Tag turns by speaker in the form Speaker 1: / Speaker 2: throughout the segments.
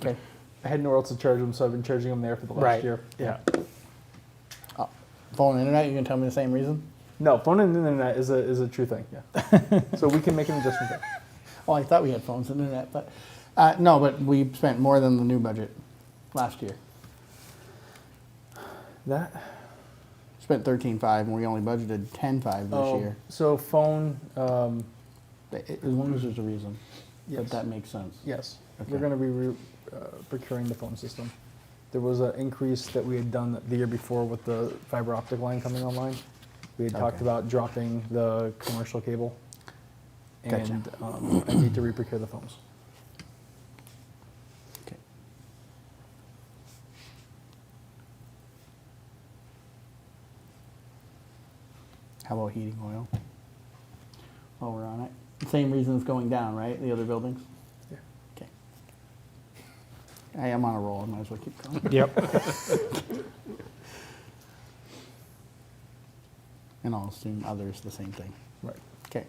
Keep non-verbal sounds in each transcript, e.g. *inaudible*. Speaker 1: Okay. I had nowhere else to charge them, so I've been charging them there for the last
Speaker 2: Right.
Speaker 1: year.
Speaker 2: Yeah. Uh, phone and internet, you can tell me the same reason?
Speaker 1: No, phone and internet is a is a true thing. Yeah.
Speaker 2: *laughs*
Speaker 1: so we can make an adjustment there.
Speaker 2: Oh, I thought we had phones and internet, but uh, no, but we spent more than the new budget last year.
Speaker 1: That.
Speaker 2: Spent thirteen five, and we only budgeted ten five this
Speaker 1: Oh.
Speaker 2: year.
Speaker 1: Um, So phone. Um,
Speaker 2: But it- As long as there's a reason,
Speaker 1: yes.
Speaker 2: but that makes sense.
Speaker 1: yes.
Speaker 2: Okay.
Speaker 1: We're going to be re- uh, procuring the phone system. There was an increase that we had done the year before with the fiber optic line coming online. We had talked
Speaker 2: Okay.
Speaker 1: about dropping the commercial cable,
Speaker 2: Gotcha.
Speaker 1: and um, I need to re-procure the phones.
Speaker 2: Okay. How about heating oil? While we're on it, same reason it's going down, right? The other buildings.
Speaker 1: Yeah.
Speaker 2: Okay. I am on a roll. I might as well keep going.
Speaker 1: *laughs*
Speaker 3: Yep.
Speaker 2: And I'll assume others the same thing.
Speaker 1: Right.
Speaker 2: Okay.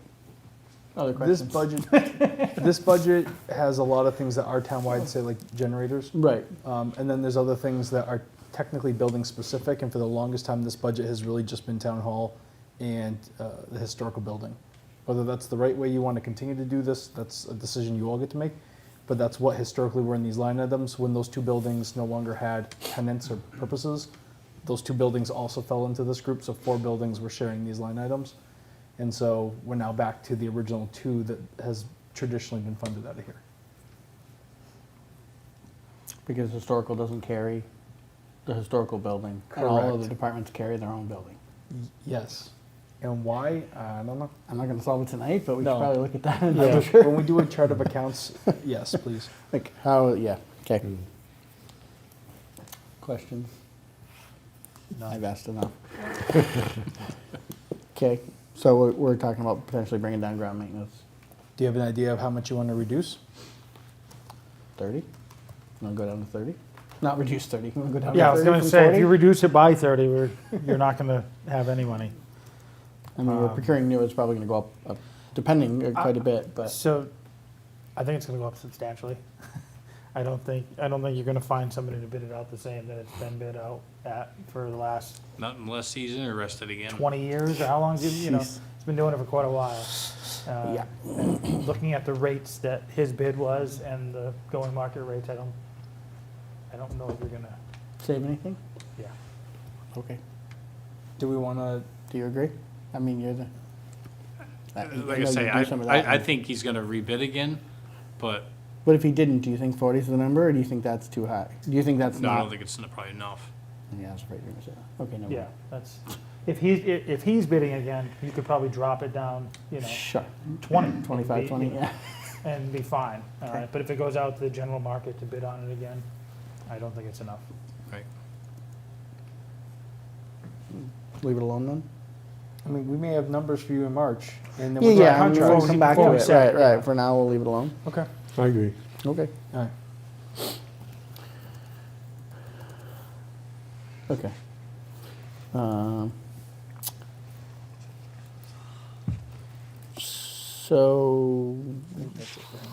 Speaker 2: Other
Speaker 1: This
Speaker 2: questions?
Speaker 1: budget,
Speaker 2: *laughs*
Speaker 1: this budget has a lot of things that are town-wide, say like generators.
Speaker 2: Right.
Speaker 1: Um, and then there's other things that are technically building specific. And for the longest time, this budget has really just been town hall and uh, the historical building. Whether that's the right way you want to continue to do this, that's a decision you all get to make. But that's what historically were in these line items. When those two buildings no longer had tenants or purposes, those two buildings also fell into this group. So four buildings were sharing these line items. And so we're now back to the original two that has traditionally been funded out of here.
Speaker 2: Because historical doesn't carry the historical building. and All of the
Speaker 1: Correct.
Speaker 2: departments carry their own building.
Speaker 1: Yes. And why? I don't know.
Speaker 2: I'm not gonna solve it tonight, but we should
Speaker 1: No.
Speaker 2: probably look at that in
Speaker 1: Yeah,
Speaker 2: the *laughs* future.
Speaker 1: When we do a chart of accounts, yes, please.
Speaker 2: Like how, yeah, okay. Questions? I've asked *laughs* enough. Okay, so we're, we're talking about potentially bringing down ground maintenance
Speaker 1: Do you have an idea of how much you want to reduce?
Speaker 2: thirty? Wanna go down to thirty? Not reduce thirty, wanna go down to thirty
Speaker 3: Yeah, I was gonna
Speaker 2: from
Speaker 3: say, if
Speaker 2: 40?
Speaker 3: you reduce it by thirty, we're, you're not gonna have any money.
Speaker 2: I mean, we're
Speaker 3: Um,
Speaker 2: procuring new, it's probably gonna go up, up, depending uh, quite a bit, but,
Speaker 3: So, I think it's gonna go up substantially. *laughs* I don't think, I don't think you're gonna find somebody to bid it out the same that it's been bid out at for the last
Speaker 4: Not unless he's interested again.
Speaker 3: twenty years, or how long, you know,
Speaker 2: Jeez.
Speaker 3: it's been doing it for quite a while. Uh,
Speaker 2: yeah.
Speaker 3: looking at the rates that his bid was and the going market rates, I don't, I don't know if you're gonna,
Speaker 2: Save anything?
Speaker 3: yeah.
Speaker 2: Okay.
Speaker 1: Do we want to,
Speaker 2: Do you agree? I mean, you're the. know
Speaker 4: Uh, Like I
Speaker 2: you
Speaker 4: say,
Speaker 2: do
Speaker 4: I,
Speaker 2: some of that,
Speaker 4: I, I
Speaker 2: and-
Speaker 4: think he's gonna rebid again, but
Speaker 2: What if he didn't? Do you think 40 is the number, or do you think that's too high? Do you think that's
Speaker 4: no,
Speaker 2: not?
Speaker 4: I don't think it's n- probably enough.
Speaker 2: yeah, that's right. You're gonna say that. Okay, no.
Speaker 3: Yeah, that's, if he's, i- if he's bidding again, you could probably drop it down, you know,
Speaker 2: Sure.
Speaker 3: twenty.
Speaker 2: 25, 20. Yeah.
Speaker 3: And be fine. Uh,
Speaker 2: Okay.
Speaker 3: But if it goes out to the general market to bid on it again, I don't think it's enough.
Speaker 4: Right.
Speaker 2: Leave it alone then.
Speaker 1: I mean, we may have numbers for you in March and then
Speaker 2: Yeah,
Speaker 1: we'll do
Speaker 2: yeah.
Speaker 1: our
Speaker 2: I mean, we'll
Speaker 1: contracts.
Speaker 2: come back to
Speaker 3: Before we
Speaker 2: it.
Speaker 3: say
Speaker 2: Right,
Speaker 3: it,
Speaker 2: right.
Speaker 3: yeah.
Speaker 2: For now, we'll leave it alone.
Speaker 1: Okay,
Speaker 5: I agree.
Speaker 2: Okay.
Speaker 1: all right.
Speaker 2: Okay. Um, so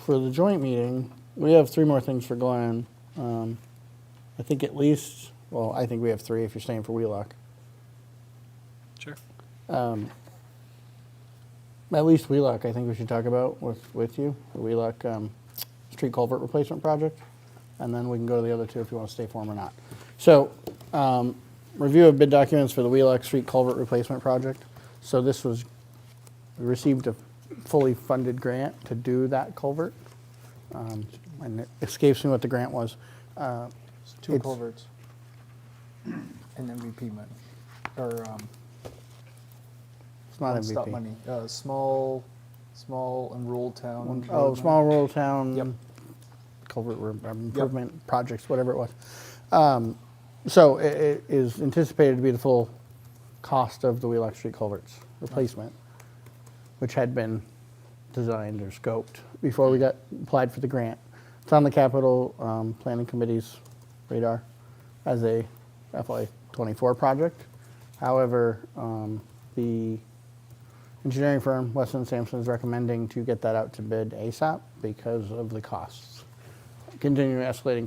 Speaker 2: for the joint meeting, we have three more things for Glenn. Um, I think at least, well, I think we have three if you're staying for Wheelock.
Speaker 4: Sure.
Speaker 2: Um, at least Wheelock, I think we should talk about with, with you, the Wheelock um, street culvert replacement project. And then we can go to the other two if you want to stay for them or not. So, um, review of bid documents for the Wheelock Street culvert replacement project. So this was, we received a fully funded grant to do that culvert. Um, And it escapes me what the grant was. Uh,
Speaker 1: Two
Speaker 2: It's-
Speaker 1: culverts. And MVP money, or, um,
Speaker 2: It's not
Speaker 1: stop
Speaker 2: MVP.
Speaker 1: money, uh, small, small and rural town. road
Speaker 2: Oh,
Speaker 1: money.
Speaker 2: small rural town.
Speaker 1: Yep.
Speaker 2: Culvert re- um, improvement projects, whatever it was. Um, so it, it is anticipated to be the full cost of the Wheelock Street culverts replacement, which had been designed or scoped before we got applied for the grant. It's on the capital um, planning committee's radar as a FY24 project. However, um, the engineering firm, Weston Sampson, is recommending to get that out to bid ASAP because of the costs. Continuing escalating